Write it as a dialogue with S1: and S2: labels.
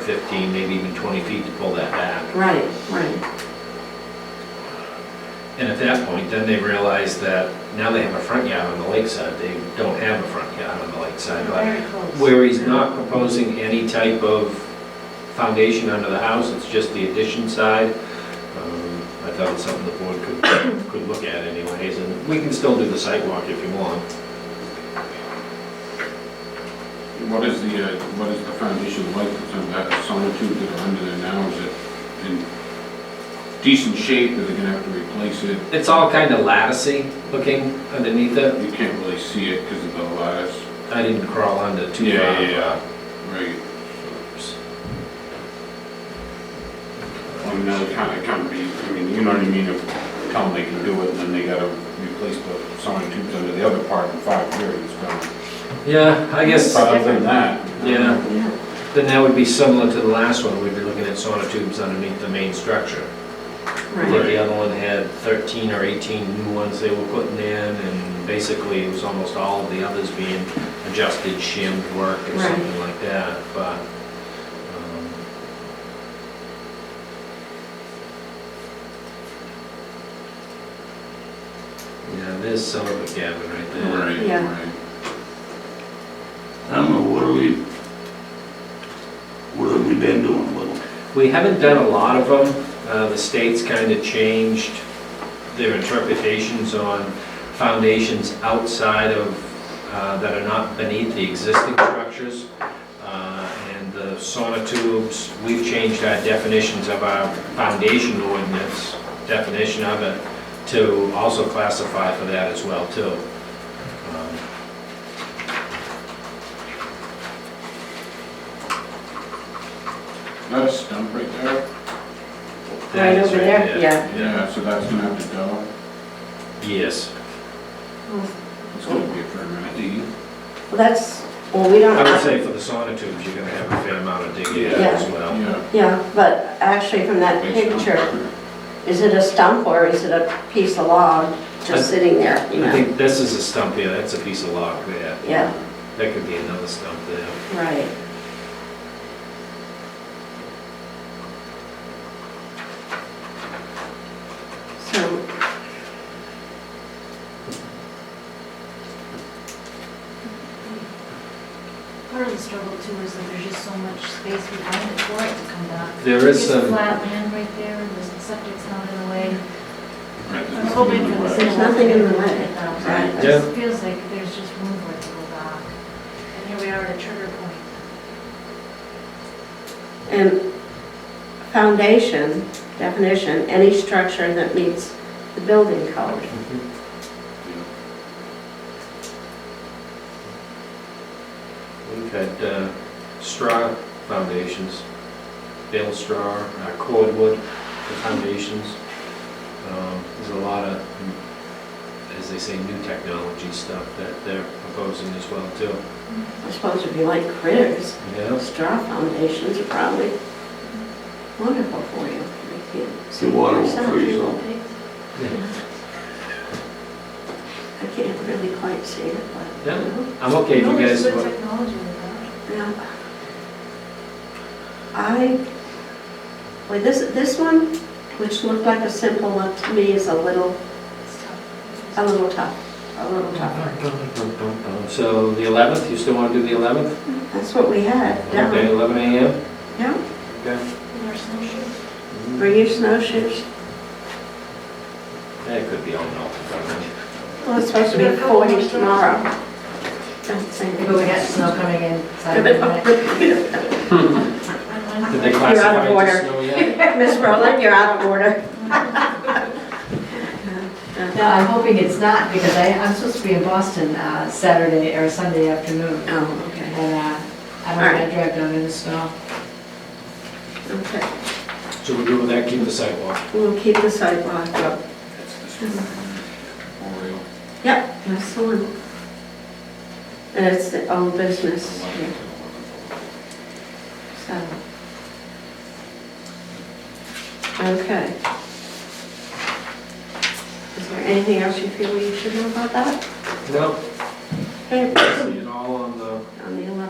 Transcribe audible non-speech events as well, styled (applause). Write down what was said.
S1: 15, maybe even 20 feet to pull that back.
S2: Right, right.
S1: And at that point, then they realize that now they have a front yard on the lakeside, they don't have a front yard on the lakeside. But
S2: Very close.
S1: where he's not proposing any type of foundation under the house, it's just the addition side. Um, I thought it's something the board could, could look at anyways, and we can still do the sidewalk if you want.
S3: What is the, uh, what is the foundation like that's on that sonotube that are under there now? Is it in decent shape, are they gonna have to replace it?
S1: It's all kind of latticey looking underneath it.
S3: You can't really see it because of the lattice.
S1: I didn't crawl under too far.
S3: Yeah, yeah, yeah. Right, I mean, that kind of can be, I mean, you know what I mean, if, tell them they can do it, and then they gotta replace the sonotubes under the other part in five years. so.
S1: Yeah, I guess,
S3: But other than that.
S1: yeah,
S2: Yeah,
S1: then that would be similar to the last one, we'd be looking at sonotubes underneath the main structure. I
S2: right.
S1: think the other one had 13 or 18 new ones they were putting in, and basically it was almost all of the others being adjusted, shimmed work or
S2: Right.
S1: something like that, but... um, Yeah, there's some of it, Gavin, right there.
S3: Right,
S2: Yeah.
S3: right.
S4: I don't know, what are we, what have we been doing with them?
S1: We haven't done a lot of them. Uh, The state's kind of changed their interpretations on foundations outside of, uh, that are not beneath the existing structures. Uh, And the sonotubes, we've changed our definitions of our foundation ordinance, definition of it, to also classify for that as well, too. Um,
S3: That a stump right there?
S1: that is
S2: over there? Yeah.
S3: Yeah, so that's gonna have to go.
S1: Yes.
S3: It's gonna be a fair amount of digging.
S2: Well, that's, well, we don't.
S1: I would say for the sonotubes, you're gonna have a fair amount of digging as well.
S3: Yeah.
S2: Yeah, but actually from that picture, is it a stump or is it a piece of log just sitting there, you
S1: I
S2: know?
S1: think this is a stump here, that's a piece of log there.
S2: Yeah,
S1: That could be another stump there.
S2: right. So,
S5: Part of the struggle too is that there's just so much space behind it for it to come back.
S1: There is
S5: There's
S1: some,
S5: flat land right there, and the septic's not in the way.
S3: Right,
S5: I
S3: there's
S5: was hoping for the
S3: nothing in
S5: city.
S2: There's nothing in the
S5: to
S2: way.
S5: take it out, but
S2: Right.
S5: It just feels like there's just room for it to go back. And here we are at a trigger point.
S2: and foundation, definition, any structure that meets the building code.
S1: we've had uh, straw foundations, bale straw, uh, cordwood for foundations. Um, There's a lot of, as they say, new technology stuff that they're proposing as well too.
S2: They're supposed to be like critters.
S1: Yeah.
S2: Those straw foundations are probably wonderful for you. Make you
S4: The water will
S2: yourself.
S4: freeze up.
S2: I can't really quite see it, but.
S1: Yeah. I'm okay if
S5: No,
S1: you
S5: there's
S1: guys,
S5: good
S1: want-
S5: technology with that.
S2: Yeah. I, well, this, this one, which looked like a simple one, to me is a little,
S5: It's
S2: a
S5: tough.
S2: little tough, a little tougher.
S1: so the 11th, you still want to do the 11th?
S2: That's what we had
S1: Okay,
S2: down.
S1: 11 AM?
S2: Yeah,
S1: Okay.
S5: With our snowshoes.
S2: bring your snowshoes.
S1: That could be all melted.
S2: Well, it's supposed to be forty tomorrow. Don't say that.
S6: But we got snow coming in Saturday night.
S2: Miss
S5: I'm-
S1: Did they
S2: You're out of
S1: classify it
S2: order.
S1: as snow
S2: (laughs)
S1: yet?
S2: Rowland, you're out of order.
S6: No, I'm hoping it's not, because I, I'm supposed to be in Boston uh, Saturday or Sunday afternoon.
S2: Oh, okay,
S6: And uh, I don't want to drive down in the snow.
S2: okay.
S1: So we're good with that, keep the sidewalk.
S2: We'll keep the sidewalk up.
S3: the way. That's the street. Oriole.
S2: Yep, that's the one. And it's the old business, yeah, so. Okay. Is there anything else you feel we should know about that?
S1: No,
S2: Okay,
S1: see it all on the
S2: on the